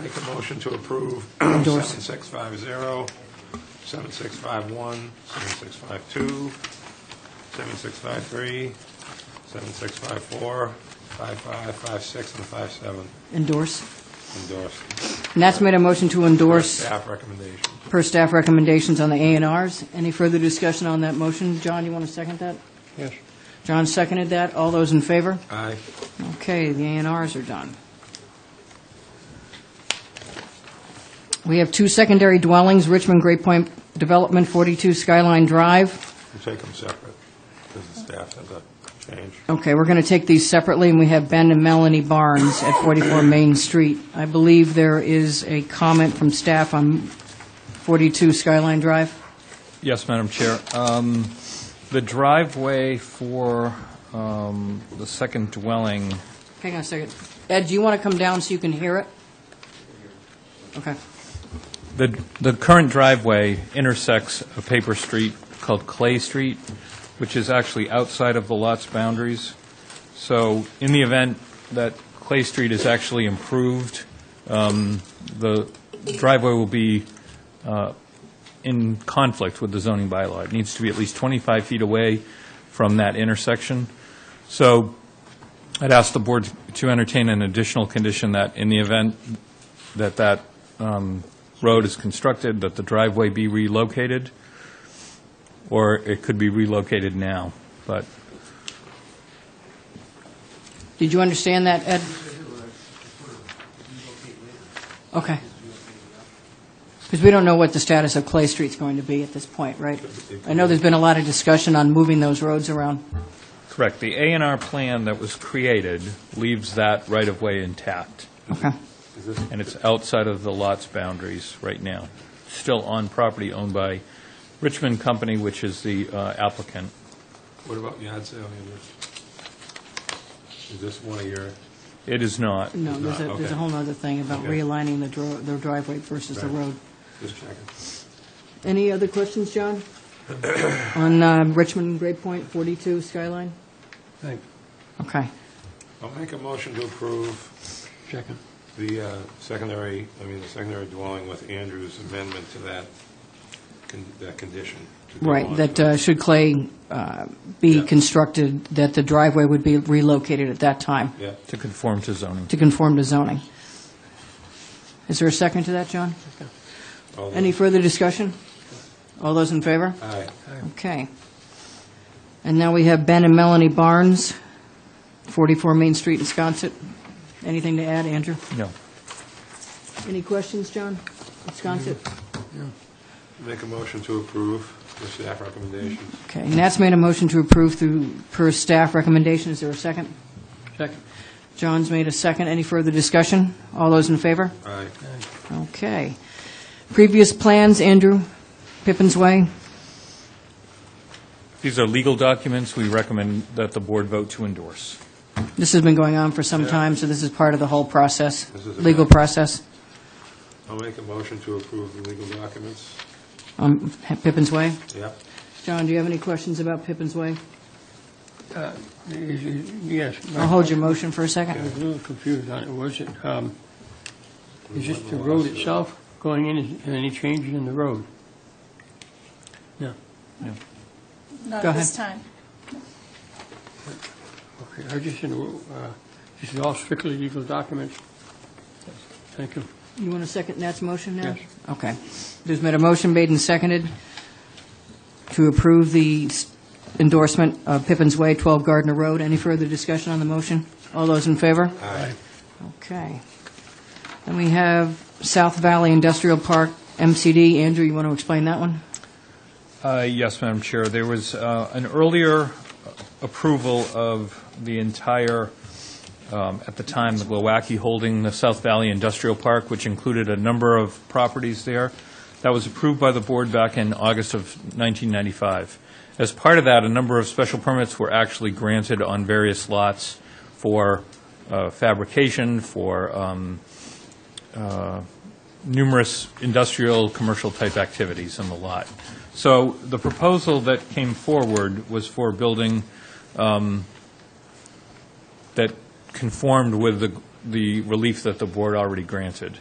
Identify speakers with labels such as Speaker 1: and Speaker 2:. Speaker 1: make a motion to approve
Speaker 2: Endorse.
Speaker 1: 7650, 7651, 7652, 7653, 7654, 55, 56, and 57.
Speaker 2: Endorse.
Speaker 1: Endorsed.
Speaker 2: And that's made a motion to endorse
Speaker 1: Staff recommendation.
Speaker 2: per staff recommendations on the A and Rs. Any further discussion on that motion? John, you want to second that?
Speaker 1: Yes.
Speaker 2: John seconded that. All those in favor?
Speaker 1: Aye.
Speaker 2: Okay, the A and Rs are done. We have two secondary dwellings, Richmond Great Point Development, 42 Skyline Drive.
Speaker 1: We'll take them separate, because the staff has a change.
Speaker 2: Okay, we're going to take these separately, and we have Ben and Melanie Barnes at 44 Main Street. I believe there is a comment from staff on 42 Skyline Drive.
Speaker 3: Yes, Madam Chair. Um, The driveway for um, the second dwelling,
Speaker 2: Hang on a second. Ed, do you want to come down so you can hear it? Okay.
Speaker 3: the the current driveway intersects a paper street called Clay Street, which is actually outside of the lot's boundaries. So in the event that Clay Street is actually improved, um, the driveway will be uh, in conflict with the zoning bylaw. It needs to be at least 25 feet away from that intersection. So I'd ask the board to entertain an additional condition that in the event that that um, road is constructed, that the driveway be relocated, or it could be relocated now, but
Speaker 2: Did you understand that, Ed? Okay. Because we don't know what the status of Clay Street's going to be at this point, right? I know there's been a lot of discussion on moving those roads around.
Speaker 3: Correct. The A and R plan that was created leaves that right-of-way intact,
Speaker 2: Okay.
Speaker 1: Is this,
Speaker 3: and it's outside of the lot's boundaries right now, still on property owned by Richmond Company, which is the uh, applicant.
Speaker 1: what about yard sale units? Is this one of your,
Speaker 3: It is not.
Speaker 2: No, there's a,
Speaker 1: Not,
Speaker 2: there's
Speaker 1: okay.
Speaker 2: a whole other thing about
Speaker 1: Okay.
Speaker 2: realigning the dro- the driveway versus the
Speaker 1: Right.
Speaker 2: road.
Speaker 1: just checking.
Speaker 2: Any other questions, John? On uh, Richmond Great Point, 42 Skyline?
Speaker 1: Thank
Speaker 2: Okay.
Speaker 1: I'll make a motion to approve
Speaker 4: Second.
Speaker 1: the uh, secondary, I mean, the secondary dwelling with Andrew's amendment to that, con- that condition. to go
Speaker 2: Right,
Speaker 1: on.
Speaker 2: that uh, should Clay uh, be
Speaker 1: Yeah.
Speaker 2: constructed, that the driveway would be relocated at that time
Speaker 1: Yeah,
Speaker 3: To conform to zoning.
Speaker 2: to conform to zoning. Is there a second to that, John?
Speaker 1: all
Speaker 2: Any
Speaker 1: those-
Speaker 2: further discussion? All those in favor?
Speaker 1: Aye.
Speaker 2: Okay. And now we have Ben and Melanie Barnes, 44 Main Street in Sconset. Anything to add, Andrew?
Speaker 3: No.
Speaker 2: Any questions, John? Sconset?
Speaker 1: Make a motion to approve the staff recommendations.
Speaker 2: Okay, and that's made a motion to approve through, per staff recommendation. Is there a second?
Speaker 4: Second.
Speaker 2: John's made a second. Any further discussion? All those in favor?
Speaker 1: Aye.
Speaker 2: Okay. Previous plans, Andrew, Pippin's Way.
Speaker 3: These are legal documents. We recommend that the board vote to endorse.
Speaker 2: This has been going on for some time, so this is part of the whole process,
Speaker 1: This is a
Speaker 2: legal
Speaker 1: mess.
Speaker 2: process
Speaker 1: I'll make a motion to approve the legal documents.
Speaker 2: on Pippin's Way.
Speaker 1: Yep.
Speaker 2: John, do you have any questions about Pippin's Way?
Speaker 4: Is it- Yes.
Speaker 2: I'll hold your motion for a
Speaker 4: I
Speaker 2: second.
Speaker 4: was a little confused on it. Was it, um, is this the road itself going in? Is there any changes in the road? No.
Speaker 5: Not
Speaker 2: Go
Speaker 5: at this time.
Speaker 4: Okay, I just, didn't, uh, this is all strictly legal documents? Thank you.
Speaker 2: You want to second Nat's motion now?
Speaker 4: Yes.
Speaker 2: Okay. There's been a motion made and seconded to approve the s- endorsement of Pippin's Way, 12 Gardner Road. Any further discussion on the motion? All those in favor?
Speaker 1: Aye.
Speaker 2: Okay. Then we have South Valley Industrial Park, MCD. Andrew, you want to explain that one?
Speaker 3: Uh, Yes, Madam Chair. There was uh, an earlier approval of the entire, um, at the time, the Glowacki holding the South Valley Industrial Park, which included a number of properties there. That was approved by the board back in August of 1995. As part of that, a number of special permits were actually granted on various lots for uh, fabrication, for um, numerous industrial, commercial-type activities on the lot. So the proposal that came forward was for a building um, that conformed with the the relief that the board already granted.